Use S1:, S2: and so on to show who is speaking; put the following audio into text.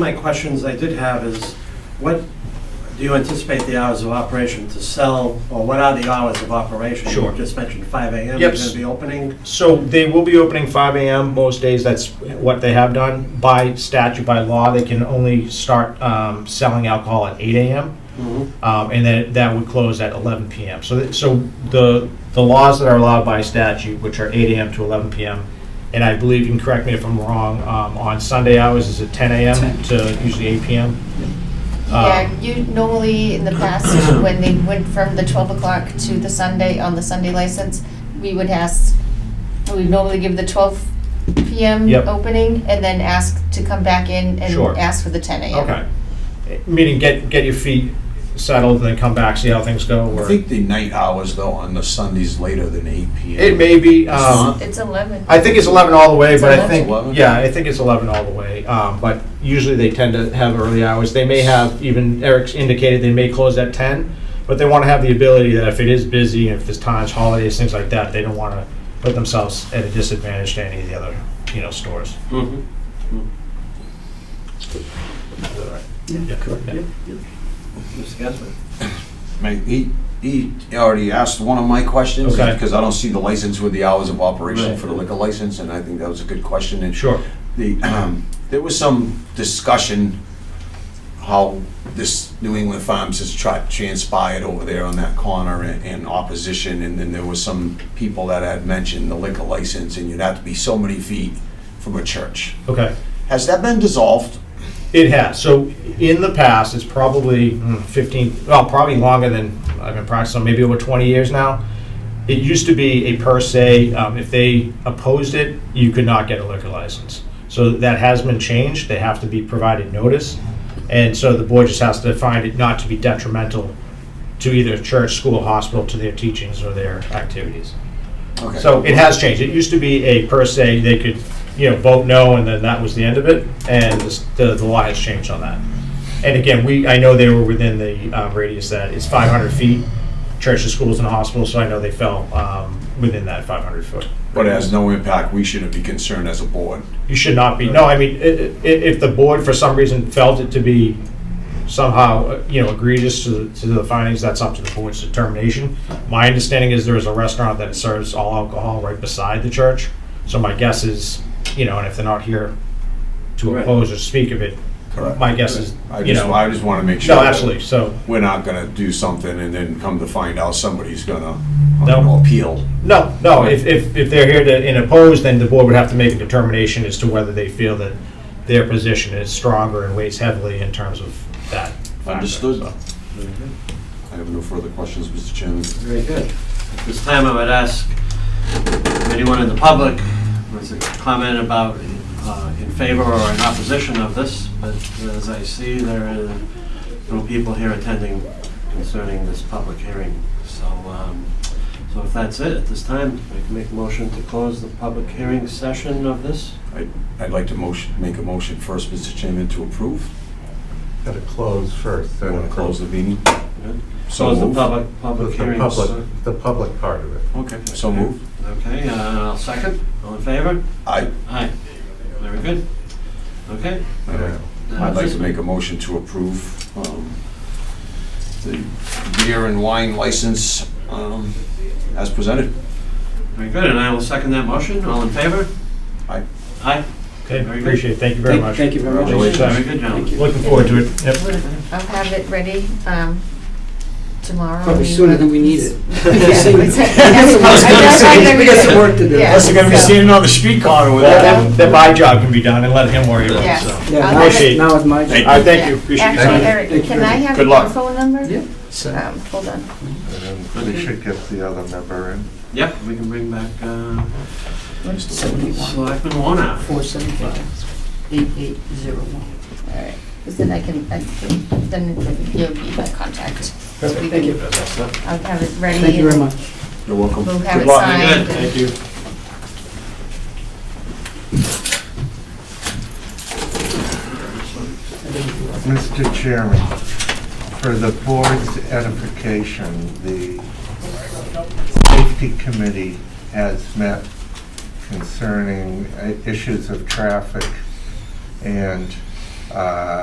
S1: My questions I did have is, what do you anticipate the hours of operation to sell, or what are the hours of operation?
S2: Sure.
S1: You just mentioned 5 AM,
S2: Yep.
S1: you're going to be opening?
S2: So they will be opening 5 AM most days, that's what they have done. By statute, by law, they can only start um, selling alcohol at 8 AM,
S1: Mhm.
S2: um, and then that would close at 11 PM. So, that- so the, the laws that are allowed by statute, which are 8 AM to 11 PM, and I believe, you can correct me if I'm wrong, um, on Sunday hours, is it 10 AM
S3: 10.
S2: to usually 8 PM?
S4: Yeah,
S2: Um,
S4: you normally, in the past, when they went from the twelve o'clock to the Sunday, on the Sunday license, we would ask, we normally give the twelve PM
S2: Yep.
S4: opening, and then ask to come back in and
S2: Sure.
S4: ask for the ten AM.
S2: Um, Okay. Meaning get, get your feet settled and then come back, see how things go?
S5: I
S2: or-
S5: think the night hours though on the Sundays later than eight PM.
S2: It may be. um,
S4: It's eleven.
S2: I think it's 11 all the way,
S4: It's
S2: but I
S4: 11?
S2: think,
S5: 11?
S2: yeah, I think it's 11 all the way. Um, But usually they tend to have early hours. They may have, even Eric's indicated, they may close at 10, but they want to have the ability that if it is busy, if it's times, holidays, things like that, they don't want to put themselves at a disadvantage to any of the other, you know, stores.
S1: Mhm.
S2: Mm-hmm. Is that right?
S3: Yeah, correct.
S2: Yeah.
S3: Yep, yep.
S1: Mr. Gasman?
S5: May- He, he already asked one of my questions,
S2: Okay.
S5: because I don't see the license with the hours of operation
S1: Right.
S5: for the liquor license, and I think that was a good question. And
S2: Sure.
S5: the, um, there was some discussion how this New England Farms has transpired over there on that corner and, and opposition, and then there was some people that had mentioned the liquor license, and you'd have to be so many feet from a church.
S2: Okay.
S5: Has that been dissolved?
S2: It has. So in the past, it's probably mm, 15, well, probably longer than I've been practicing, maybe over 20 years now. It used to be a per se, um, if they opposed it, you could not get a liquor license. So that has been changed. They have to be provided notice. And so the board just has to find it not to be detrimental to either church, school, hospital, to their teachings or their activities.
S5: Okay.
S2: So it has changed. It used to be a per se, they could, you know, vote no, and then that was the end of it, and this- the, the law has changed on that. And again, we, I know they were within the uh, radius that it's 500 feet, churches, schools, and hospitals, so I know they fell um, within that 500 foot.
S5: But it has no impact, we shouldn't be concerned as a board.
S2: You should not be, no, I mean, i- i- if the board for some reason felt it to be somehow, uh, you know, egregious to, the- to the findings, that's up to the board's determination. My understanding is there is a restaurant that serves all alcohol right beside the church, so my guess is, you know, and if they're not here to
S1: Right.
S2: oppose or speak of it,
S5: Correct.
S2: my guess is,
S5: I
S2: you
S5: just,
S2: know,
S5: I just want to make sure.
S2: no,
S5: that
S2: absolutely, so,
S5: We're not gonna do something and then come to find out somebody's gonna, I
S2: No.
S5: don't know, appeal.
S2: no, no, if, if, if they're here to, and oppose, then the board would have to make a determination as to whether they feel that their position is stronger and weighs heavily in terms of that. factor,
S5: Understood.
S2: so.
S1: Very good.
S2: Mm-hmm.
S5: I have no further questions, Mr. Chairman.
S1: Very good. At this time, I would ask if anyone in the public was a comment about uh, in favor or in opposition of this, but as I see, there are no people here attending concerning this public hearing. So, um, so if that's it, at this time, I can make a motion to close the public hearing session of this.
S5: I'd like to motion, make a motion first, Mr. Chairman, to approve.
S6: Got to close first, then
S5: Want to close the meeting?
S1: Good.
S5: So
S1: Close the
S5: moved.
S1: public, public
S6: The
S1: hearing.
S6: public, the public part of it.
S1: Okay.
S5: So moved.
S1: Okay, uh, I'll second. All in favor?
S5: I,
S1: Aye. Very good. Okay.
S6: Yeah.
S5: I'd like to make a motion to approve, um, the beer and wine license, um, as presented.
S1: Very good, and I will second that motion. All in favor?
S5: Aye.
S1: Aye.
S2: Okay,
S1: Very good.
S2: appreciate it. Thank you very
S3: Thank-
S2: much.
S3: Thank you very much.
S5: Congratulations.
S1: Very good, gentlemen.
S2: Looking forward to it. Yep.
S4: I'll have it ready, um, tomorrow.
S3: Probably sooner than we need it.
S4: Yeah.
S3: We got some work to do.
S4: Yeah.
S2: Unless you're gonna be
S4: So-
S2: standing on the street corner with that, then- then my job can be done and let him worry about it,
S4: Yes.
S2: so.
S4: I'll
S3: Yeah, now
S4: have
S3: it's-
S2: Appreciate
S4: it-
S2: it.
S3: now it's my job.
S5: Thank
S2: All right, thank you,
S4: Yeah.
S2: appreciate your
S4: Actually,
S2: time.
S6: Thank
S4: Eric,
S6: you
S4: can
S6: very
S4: I
S6: much.
S4: have
S2: Good
S4: your
S2: luck.
S4: phone number?
S3: Yeah. So-
S4: Um, hold on.
S6: And then We should get the other member in.
S1: Yep, we can bring back uh,
S3: Seventy-one,
S1: Selectman Warnock.
S3: four seventy-five, eight eight zero one.
S4: All right, because then I can, I can- then you'll be my contact. So we
S3: Thank you.
S4: can- I'll have it ready.
S3: Thank you very
S4: and
S3: much.
S5: You're welcome.
S4: We'll have
S5: Good
S4: it
S5: luck.
S4: signed.
S1: Very good,
S4: and-
S1: thank you.
S6: Mr. Chairman, for the board's edification, the safety committee has met concerning uh, issues of traffic and uh,